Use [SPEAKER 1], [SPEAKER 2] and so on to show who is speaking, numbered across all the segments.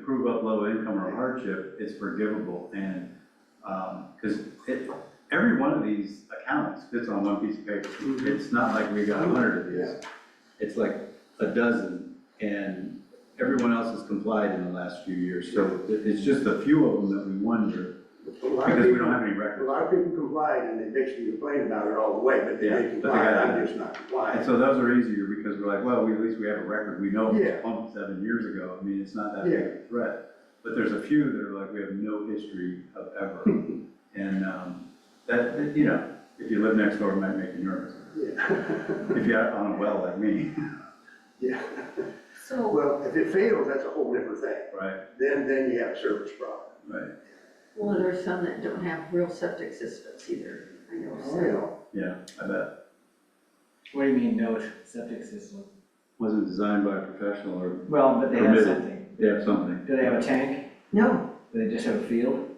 [SPEAKER 1] of low income or hardship, it's forgivable and, um, cause it, every one of these accounts fits on one piece of paper. It's not like we got a hundred of these. It's like a dozen and everyone else has complied in the last few years. So it- it's just a few of them that we wonder
[SPEAKER 2] A lot of
[SPEAKER 1] because we don't
[SPEAKER 2] people,
[SPEAKER 1] have any
[SPEAKER 2] a
[SPEAKER 1] records.
[SPEAKER 2] lot of people complied and they basically complained about it all the way, but they
[SPEAKER 1] Yeah,
[SPEAKER 2] didn't
[SPEAKER 1] but they
[SPEAKER 2] comply,
[SPEAKER 1] got-
[SPEAKER 2] I'm just not
[SPEAKER 1] And
[SPEAKER 2] complying.
[SPEAKER 1] so those are easier because we're like, well, we, at least we have a record, we know it
[SPEAKER 2] Yeah.
[SPEAKER 1] was pumped seven years ago, I mean, it's not that big of a threat. But there's a few that are like, we have no history of ever, and, um, that, that, you know, if you live next door, it might make you nervous.
[SPEAKER 2] Yeah.
[SPEAKER 1] If you're out on a well like me,
[SPEAKER 2] Yeah,
[SPEAKER 3] So,
[SPEAKER 2] well, if it fails, that's a whole different thing,
[SPEAKER 1] right,
[SPEAKER 2] then, then you have a service problem.
[SPEAKER 1] right,
[SPEAKER 3] well, there are some that don't have real septic systems either, I know,
[SPEAKER 2] You
[SPEAKER 3] so.
[SPEAKER 2] know,
[SPEAKER 1] yeah, I bet.
[SPEAKER 4] What do you mean, no septic system?
[SPEAKER 1] Wasn't designed by a professional or,
[SPEAKER 4] Well, but they have
[SPEAKER 1] Permitted.
[SPEAKER 4] something.
[SPEAKER 1] they have something.
[SPEAKER 4] Do they have a tank?
[SPEAKER 3] No,
[SPEAKER 4] Do they just have a field?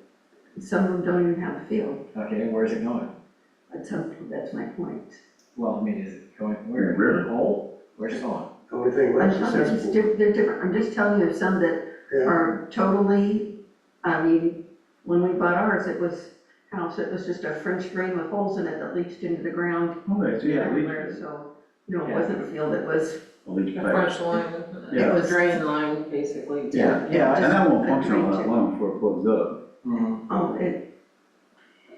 [SPEAKER 3] some of them don't even have a field,
[SPEAKER 4] Okay, where's it going?
[SPEAKER 3] that's, some- that's my point.
[SPEAKER 4] Well, I mean, is it going where?
[SPEAKER 1] River.
[SPEAKER 4] Hole? Where's it going?
[SPEAKER 2] the only thing
[SPEAKER 3] I'm
[SPEAKER 2] left
[SPEAKER 3] not-
[SPEAKER 2] is
[SPEAKER 3] they're just
[SPEAKER 2] sensible.
[SPEAKER 3] diff- They're different, I'm just telling you, there's some that
[SPEAKER 2] Yeah,
[SPEAKER 3] are totally, I mean, when we bought ours, it was house, it was just a French drain with holes in it that leached into the ground
[SPEAKER 1] Oh, they see a leach,
[SPEAKER 3] everywhere,
[SPEAKER 1] pad.
[SPEAKER 3] so, you know, it
[SPEAKER 4] Yeah.
[SPEAKER 3] wasn't a field, it was,
[SPEAKER 1] a leach
[SPEAKER 5] A
[SPEAKER 1] pipe.
[SPEAKER 5] French line,
[SPEAKER 1] Yeah.
[SPEAKER 5] it was drain line, basically.
[SPEAKER 3] Yeah.
[SPEAKER 4] Yeah,
[SPEAKER 1] And that won't
[SPEAKER 3] a
[SPEAKER 1] function all that
[SPEAKER 3] drain.
[SPEAKER 1] long before it blows up.
[SPEAKER 4] Mhm.
[SPEAKER 3] oh, it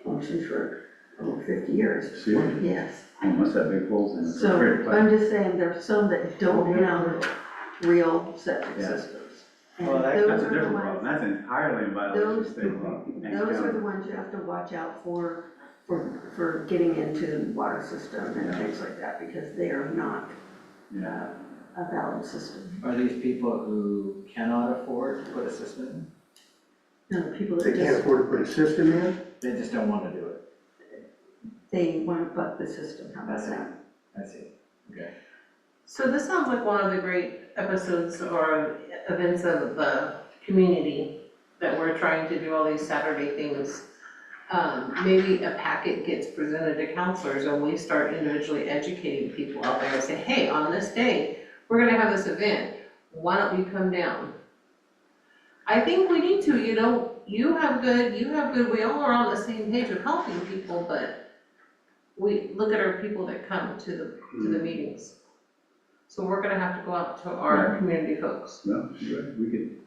[SPEAKER 3] functioned for over fifty years.
[SPEAKER 1] Seriously?
[SPEAKER 3] Yes.
[SPEAKER 1] Unless that big holes in it. It's a great
[SPEAKER 3] So
[SPEAKER 1] pipe.
[SPEAKER 3] I'm just saying, there are some that don't have real septic
[SPEAKER 1] Yeah.
[SPEAKER 3] systems. And
[SPEAKER 4] Well, that-
[SPEAKER 3] those
[SPEAKER 1] That's a
[SPEAKER 3] are the
[SPEAKER 1] different
[SPEAKER 3] ones-
[SPEAKER 1] problem, that's entirely in violation of
[SPEAKER 3] Those-
[SPEAKER 1] state law. Thanks,
[SPEAKER 3] Those are
[SPEAKER 1] John.
[SPEAKER 3] the ones you have to watch out for, for, for getting into the water system and
[SPEAKER 1] Yeah.
[SPEAKER 3] things like that, because they are not
[SPEAKER 1] Yeah,
[SPEAKER 3] uh, a valid system.
[SPEAKER 4] Are these people who cannot afford to put a system in?
[SPEAKER 3] No, the people
[SPEAKER 2] they
[SPEAKER 3] that
[SPEAKER 2] can't
[SPEAKER 3] just,
[SPEAKER 2] afford to put a system in,
[SPEAKER 4] They just don't wanna do it.
[SPEAKER 3] they want to buck the system, how about
[SPEAKER 4] That's it.
[SPEAKER 3] that?
[SPEAKER 4] That's it. Okay.
[SPEAKER 5] So this sounds like one of the great episodes or events of the community that we're trying to do all these Saturday things. Um, maybe a packet gets presented to counselors and we start individually educating people out there and say, hey, on this day, we're gonna have this event, why don't you come down? I think we need to, you know, you have good, you have good, we all are on the same page of helping people, but we, look at our people that come to the, to the meetings. So we're gonna have to go out to our community folks.
[SPEAKER 1] no, you're right, we could.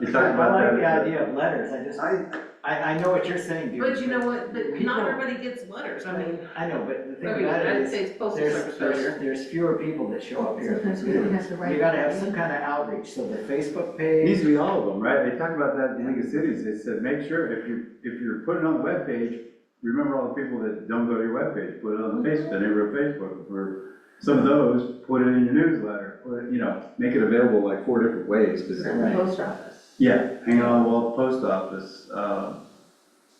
[SPEAKER 4] I
[SPEAKER 1] You talked about that.
[SPEAKER 4] like the idea of letters. I just,
[SPEAKER 2] I,
[SPEAKER 4] I, I know what you're saying, dude.
[SPEAKER 5] But you know what, but
[SPEAKER 4] people-
[SPEAKER 5] not everybody gets letters, I mean,
[SPEAKER 4] I know, but the thing
[SPEAKER 5] I mean,
[SPEAKER 4] about it
[SPEAKER 5] United
[SPEAKER 4] is,
[SPEAKER 5] States Postal
[SPEAKER 4] there's,
[SPEAKER 5] Service
[SPEAKER 4] there's,
[SPEAKER 5] letter.
[SPEAKER 4] there's fewer people that show up here.
[SPEAKER 3] Sometimes we don't have the right.
[SPEAKER 4] You gotta have some kind of outreach, so the Facebook
[SPEAKER 1] It needs
[SPEAKER 4] page,
[SPEAKER 1] to be all of them, right? They talked about that in League of Cities, they said, make sure if you, if you're putting on the webpage, remember all the people that don't go to your webpage, put it on the Facebook, the neighborhood Facebook, or some of those, put it in your newsletter, put it, you know, make it available like four different ways, because,
[SPEAKER 3] At the post office.
[SPEAKER 1] yeah, hang it on the wall, at the post office, uh.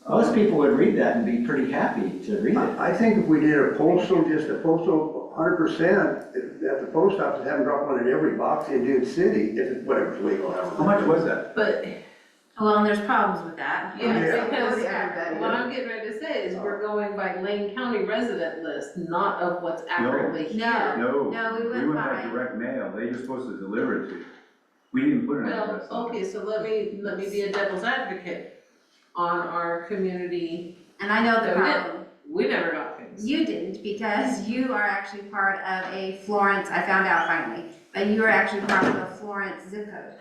[SPEAKER 4] most people would read that and be pretty happy to read it.
[SPEAKER 2] I, I think if we did a postal, just a postal, hundred percent, at the post office, have them drop one in every box in Dune City, if, it- whatever's legal. I don't know.
[SPEAKER 1] How much was that?
[SPEAKER 5] But,
[SPEAKER 6] Well, and there's problems with that.
[SPEAKER 5] yeah,
[SPEAKER 2] Yeah.
[SPEAKER 5] because
[SPEAKER 3] Yeah.
[SPEAKER 5] what I'm getting ready to say is we're going by Lane County resident list, not of what's accurately here.
[SPEAKER 6] No.
[SPEAKER 1] No.
[SPEAKER 6] No, we went by-
[SPEAKER 1] direct mail, they were supposed to deliver it to you. We didn't put an
[SPEAKER 5] Well,
[SPEAKER 1] address on it.
[SPEAKER 5] okay, so let me, let me be a devil's advocate on our community,
[SPEAKER 6] And I know the
[SPEAKER 5] Oh, yeah.
[SPEAKER 6] problem.
[SPEAKER 5] we never got things.
[SPEAKER 6] You didn't because you are actually part of a Florence, I found out finally, but you are actually part of a Florence zip code.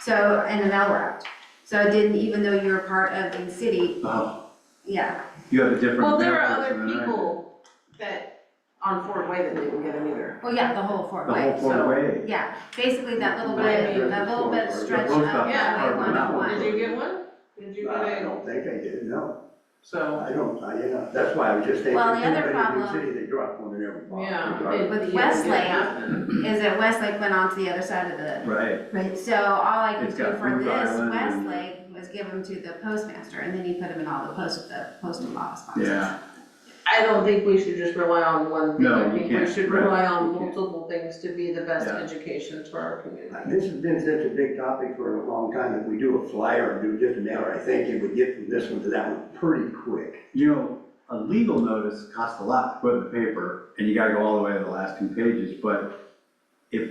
[SPEAKER 6] So, and a mail route. So it didn't, even though you were part of the city,
[SPEAKER 1] Oh,
[SPEAKER 6] yeah.
[SPEAKER 1] you have a different mail
[SPEAKER 5] Well, there are
[SPEAKER 1] person
[SPEAKER 5] other
[SPEAKER 1] than I do.
[SPEAKER 5] people that, on Fort Way that didn't get them either.
[SPEAKER 6] Well, Oh, yeah, the whole Fort
[SPEAKER 1] The whole
[SPEAKER 6] Way.
[SPEAKER 1] four
[SPEAKER 5] so-
[SPEAKER 1] way.
[SPEAKER 6] Yeah, basically that little
[SPEAKER 5] Right.
[SPEAKER 6] bit, that little bit stretch
[SPEAKER 1] post
[SPEAKER 6] up
[SPEAKER 1] office
[SPEAKER 5] part
[SPEAKER 6] Highway
[SPEAKER 1] of the mountain.
[SPEAKER 6] 101.
[SPEAKER 5] Did you get one? Did you
[SPEAKER 2] I
[SPEAKER 5] get a,
[SPEAKER 2] don't think I did, no,
[SPEAKER 5] so,
[SPEAKER 2] I don't, I, you know, that's why I was just thinking,
[SPEAKER 6] Well, the other
[SPEAKER 2] anybody in Dune
[SPEAKER 6] problem-
[SPEAKER 2] City, they drop one in every box. They
[SPEAKER 5] yeah.
[SPEAKER 2] drop
[SPEAKER 5] it-
[SPEAKER 2] it.
[SPEAKER 6] With
[SPEAKER 5] yeah, it
[SPEAKER 6] Wesley.
[SPEAKER 5] did happen.
[SPEAKER 6] Is that Westlake went on to the other side of the
[SPEAKER 1] Right,
[SPEAKER 6] So all I could
[SPEAKER 1] It's
[SPEAKER 6] do
[SPEAKER 1] got
[SPEAKER 6] for
[SPEAKER 1] Food
[SPEAKER 6] this
[SPEAKER 1] Island and-
[SPEAKER 6] Westlake was give them to the postmaster, and then he put them in all the post, the postal box boxes.
[SPEAKER 1] yeah,
[SPEAKER 5] I don't think we should just rely on one thing.
[SPEAKER 1] No,
[SPEAKER 5] I
[SPEAKER 1] you
[SPEAKER 5] think
[SPEAKER 1] can't,
[SPEAKER 5] We should
[SPEAKER 1] right,
[SPEAKER 5] rely
[SPEAKER 1] you
[SPEAKER 5] on
[SPEAKER 1] can't.
[SPEAKER 5] multiple things to be the best
[SPEAKER 1] Yeah.
[SPEAKER 5] education for our community.
[SPEAKER 2] This has been such a big topic for a long time, if we do a flyer, do just an hour, I think it would get from this one to that one pretty quick.
[SPEAKER 1] you know, a legal notice costs a lot to put in the paper, and you gotta go all the way to the last two pages, but if,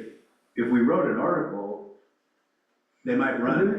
[SPEAKER 1] if we wrote an article, they might run it.